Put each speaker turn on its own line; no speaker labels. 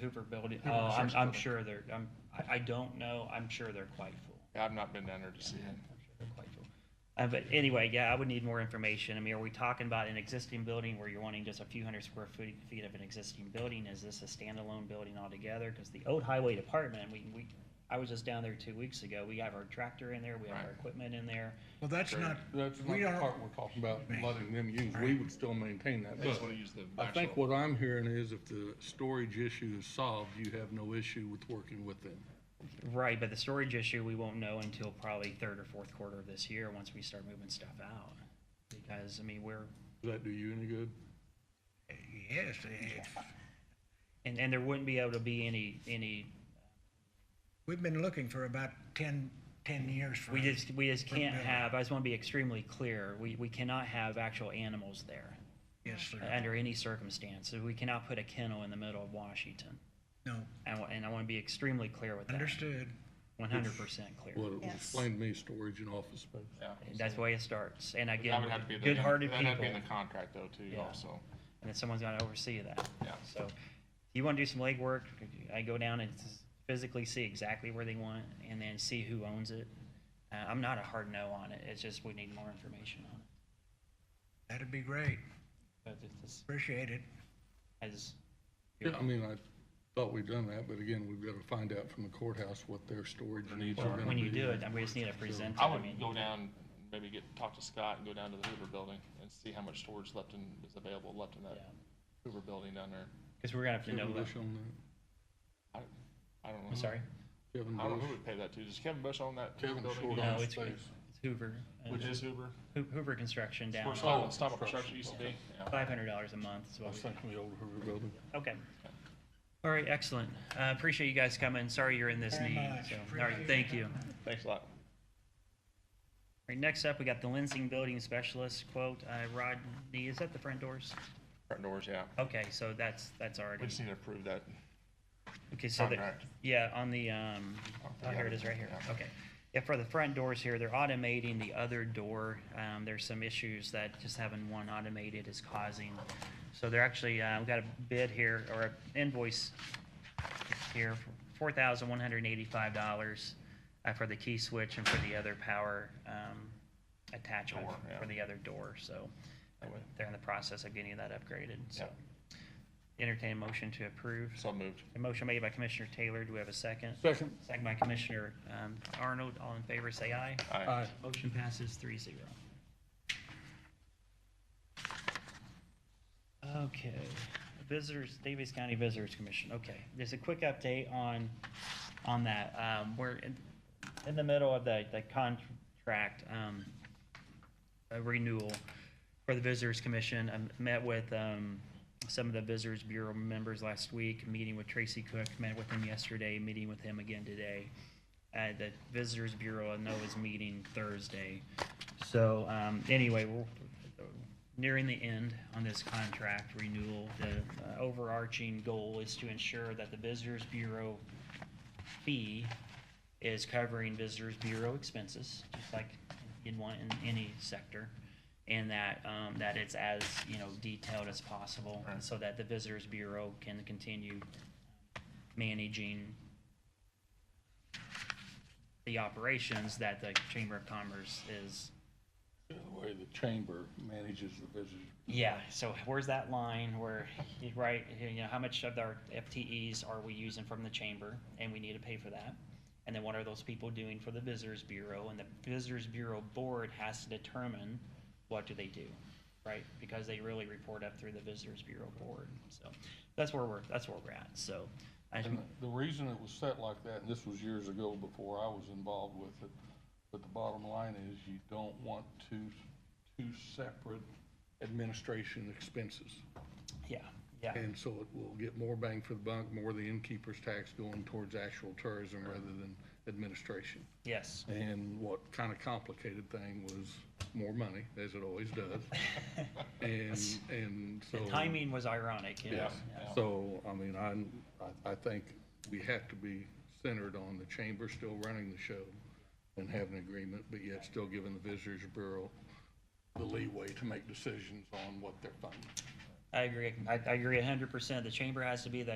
Hoover building,
Hoover
oh, I'm,
Insurance
I'm
Building.
sure they're, I'm, I, I don't know, I'm sure they're quite full.
Yeah, I've not been down there to see
I'm
it.
sure they're quite full. Uh, but anyway, yeah, I would need more information. I mean, are we talking about an existing building where you're wanting just a few hundred square feet, feet of an existing building? Is this a standalone building altogether? Cause the old highway department, we, we, I was just down there two weeks ago. We have our tractor in there, we have our
Right.
equipment in there.
Well, that's not,
That's not
we
the
don't-
part we're talking about, letting them use, we would still maintain that,
They just
but
want to use the
I think
actual,
what I'm hearing is if the storage issue is solved, you have no issue with working with them.
Right, but the storage issue, we won't know until probably third or fourth quarter of this year, once we start moving stuff out. Because, I mean, we're,
Does that do you any good?
yes, it's,
and, and there wouldn't be able to be any, any,
we've been looking for about 10, 10 years for.
we just, we just can't
Right.
have, I just want to be extremely clear, we, we cannot have actual animals there
Yes, sir.
under any circumstances. We cannot put a kennel in the middle of Washington.
No,
And, I- and I want to be extremely clear with that,
understood.
one hundred percent clear.
Well, it was
Yes.
explained to me, storage and office space.
yeah.
That's the way it starts. And
That
again,
would have to be. the-
good-hearted people.
That'd have to be in the contract though too,
Yeah.
also.
and then someone's gonna oversee that.
Yeah.
So, if you wanna do some legwork, I go down and s- physically see exactly where they want, and then see who owns it. Uh, I'm not a hard no on it, it's just we need more information on it.
That'd be great.
But it's, just-
Appreciate it.
as.
Yeah, I mean, I thought we'd done that, but again, we've got to find out from the courthouse what their storage needs are
are.
gonna be.
When you do it, we just need to present it,
I
I
would
mean,
go down, maybe get, talk to Scott and go down to the Hoover building and see how much storage left in, is available left in that
Yeah.
Hoover building down there.
cause we're gonna have to
Kevin
know, that.
Bush on
I, I don't know.
I'm sorry,
that. Kevin
I don't know
Bush.
who would pay that to. Does Kevin Bush own that
Kevin
building?
Short
no,
on
it's,
space.
it's Hoover, uh,
Which is Hoover?
Hoo- Hoover Construction down,
Where
Oh,
Stop- Stop Construction used to be? Yeah.
five hundred dollars a month is
I
what
was
we.
thinking the old Hoover building.
Okay. All right, excellent. Uh, appreciate you guys coming. Sorry you're in this
Very
need.
much.
so- All right, thank you. All
Thanks a lot.
right, next up, we got the Lensing Building Specialist quote. Uh, Rodney, is that the front doors?
Front doors, yeah.
Okay, so that's, that's
We
already,
just need to approve that.
okay, so there,
contract.
yeah, on the, um, oh, here it is right here.
Yeah.
Okay. Yeah, for the front doors here, they're automating the other door. Um, there's some issues that just having one automated is causing. So they're actually, uh, we got a bid here or a invoice here, four thousand one hundred and eighty-five dollars uh, for the key switch and for the other power um, attachment
Door, yeah.
for the other door, so
That way.
they're in the process of getting that upgraded, so.
Yeah.
Entertain a motion to approve.
So moved.
A motion made by Commissioner Taylor, do we have a second?
Second.
Second by Commissioner um, Arnold, all in favor, say aye.
Aye.
Motion passes three zero. Okay, visitors, Davis County Visitors Commission, okay, there's a quick update on, on that, um, we're in, in the middle of the, the contract, um, uh, renewal for the Visitors Commission, I met with, um, some of the Visitors Bureau members last week, meeting with Tracy Cook, met with him yesterday, meeting with him again today uh, the Visitors Bureau, I know is meeting Thursday. So, um, anyway, we're nearing the end on this contract renewal. The uh, overarching goal is to ensure that the Visitors Bureau fee is covering Visitors Bureau expenses, just like you'd want in any sector. And that, um, that it's as, you know, detailed as possible,
Right.
so that the Visitors Bureau can continue managing the operations that the Chamber of Commerce is.
The way the chamber manages the visitors.
Yeah, so where's that line where, right, you know, how much of our FTEs are we using from the chamber? And we need to pay for that. And then what are those people doing for the Visitors Bureau? And the Visitors Bureau Board has to determine what do they do, right? Because they really report up through the Visitors Bureau Board. So that's where we're, that's where we're at, so. I
And the reason it was set like that, and this was years ago before I was involved with it, but the bottom line is you don't want two, two separate administration expenses.
yeah, yeah,
And so it will get more bang for the buck, more of the innkeeper's tax going towards actual tourism rather than administration.
yes.
And what kind of complicated thing was more money, as it always does. And, and so.
The timing was ironic, yes.
Yeah.
So, I mean, I'm, I, I think we have to be centered on the chamber still running the show and have an agreement, but yet still giving the Visitors Bureau the leeway to make decisions on what they're funding.
I agree, I, I agree a hundred percent. The chamber has to be the